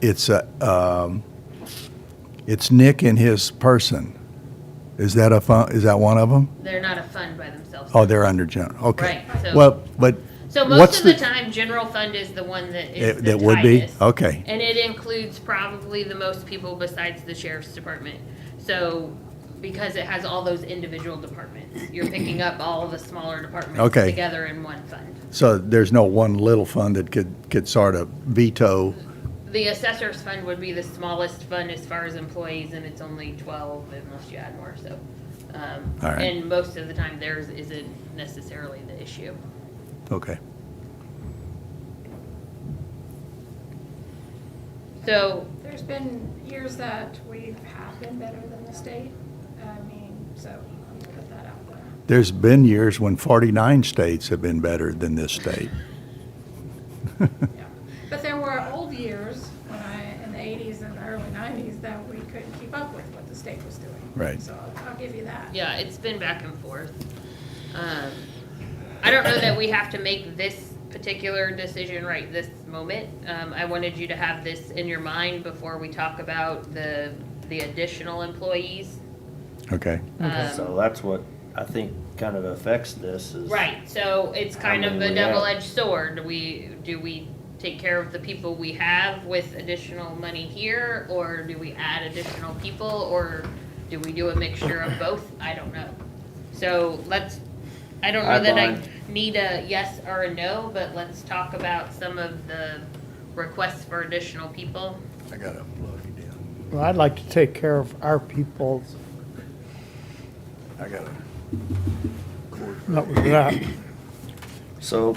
it's a, um, it's Nick and his person. Is that a fun, is that one of them? They're not a fund by themselves. Oh, they're under general, okay. Right, so- Well, but So what's most of the the- time, general fund is the one that It- is the that would be? tightest. Okay. And it includes probably the most people besides the sheriff's department. So, because it has all those individual departments, you're picking up all of the smaller departments Okay. together in one fund. So there's no one little fund that could, could sort of veto, The assessor's fund would be the smallest fund as far as employees, and it's only twelve unless you add more, so. um, All right. And most of the time, theirs isn't necessarily the issue. okay. So, There's been years that we have been better than the state. I mean, so let me put that out there. There's been years when 49 states have been better than this state. Yeah. But there were old years when I, in the eighties and the early nineties, that we couldn't keep up with what the state was doing. Right. So I'll- I'll give you that. Yeah, it's been back and forth. Um, I don't know that we have to make this particular decision right this moment. Um, I wanted you to have this in your mind before we talk about the, the additional employees. Okay, Um, So that's what I think kind of affects this is. Right, so it's How kind of many a we have. double-edged sword. Do we, do we take care of the people we have with additional money here? Or do we add additional people, or do we do a mixture of both? I don't know. So let's, I don't know I'd that I mind. need a yes or a no, but let's talk about some of the requests for additional people. I got to plug it in. Well, I'd like to take care of our people, I got to. not without, So.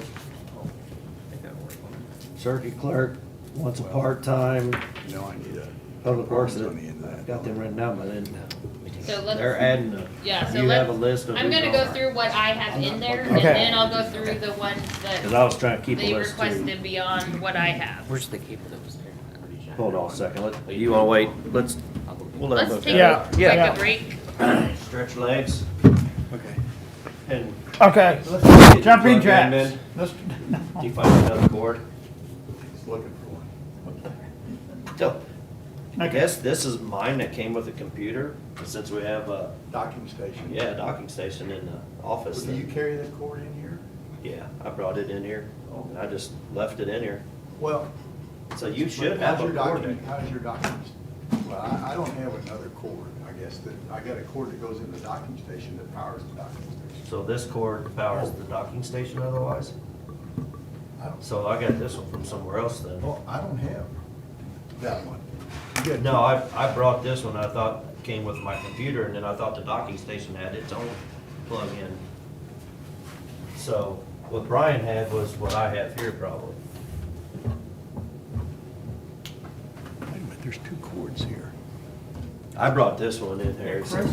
Circuit clerk wants a part-time, No, I need a. public works, On the end of that. I've got them written down, but then So let's. they're adding a. Yeah, so You have a let's- list of. I'm gonna who's go on. through what I have in there, and Okay. then I'll go through the ones that. Cause I was trying to keep They a list too. requested beyond what I have. Where's the cable that was there? I'm pretty sure. Hold on a second, let, you wanna wait, let's, I'll go- we'll let them Let's look take Yeah, a at quick yeah. break. it. Stretch legs Okay. and. okay, let's jump in plug them in. jacks. Let's- Do you find another board? Just looking for one. So, I Okay. guess this is mine that came with the computer, since we have a, Docking station. yeah, a docking station in the office. Do you that- carry that cord in here? Yeah, I brought it in here, and I just left it in here, Well. so you but should how's have a your cord docking- there. How's your docking? Well, I, I don't have another cord, I guess, that, I got a cord that goes in the docking station that powers the docking station. So this cord powers the docking station otherwise? I don't, So I got this one from somewhere else then. well, I don't have that one. You got- No, I, I brought this one, I thought came with my computer, and then I thought the docking station had its own plug-in. So what Brian had was what I have here probably. Wait a minute, there's two cords here. I brought this one in here. so-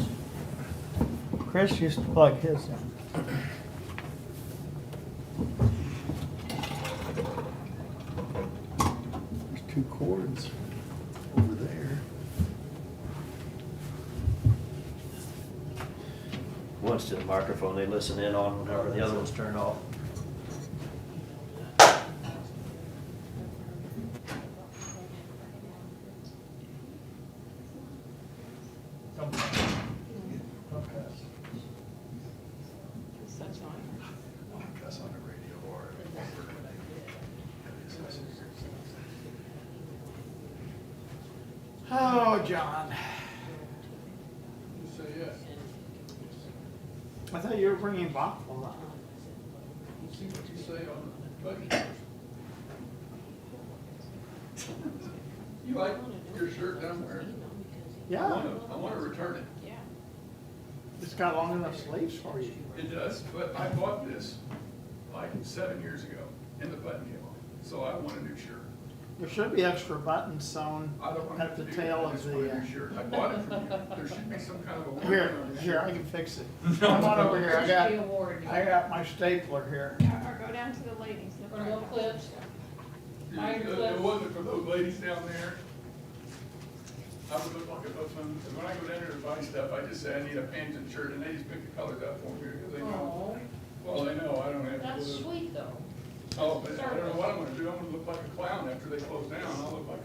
Chris, Chris used to plug his in. There's two cords over there. One's to the microphone they listen in on whenever the other one's turned off. Cuss on the radio or. Oh, John. I thought you were bringing Bachel up. You like your shirt that I'm wearing? I Yeah, wanna, I wanna return it. it's got long enough sleeves for you. It does, but I bought this like seven years ago and the button came off, so I want a new shirt. There should be extra buttons sewn I don't want to at have to the do tail that, I of just want the, a new uh, shirt. I bought it from you. There should be some kind of a warranty here, on this here, shirt. I can fix it. Come on over here, I got, award. I got my stapler here. Or or go down to the ladies. they'll Or little probably- clips. Buy your It- It clips. wasn't for those ladies down there. I would look like a buffoon, and when I go down there to buy stuff, I just say I need a pants and shirt, and they just pick the colors out for me, because they Oh, know. Well, they know, I don't have. that's blue. sweet though. Oh, but I don't know what I'm gonna do, I'm gonna look like a clown after they close down, I'll look like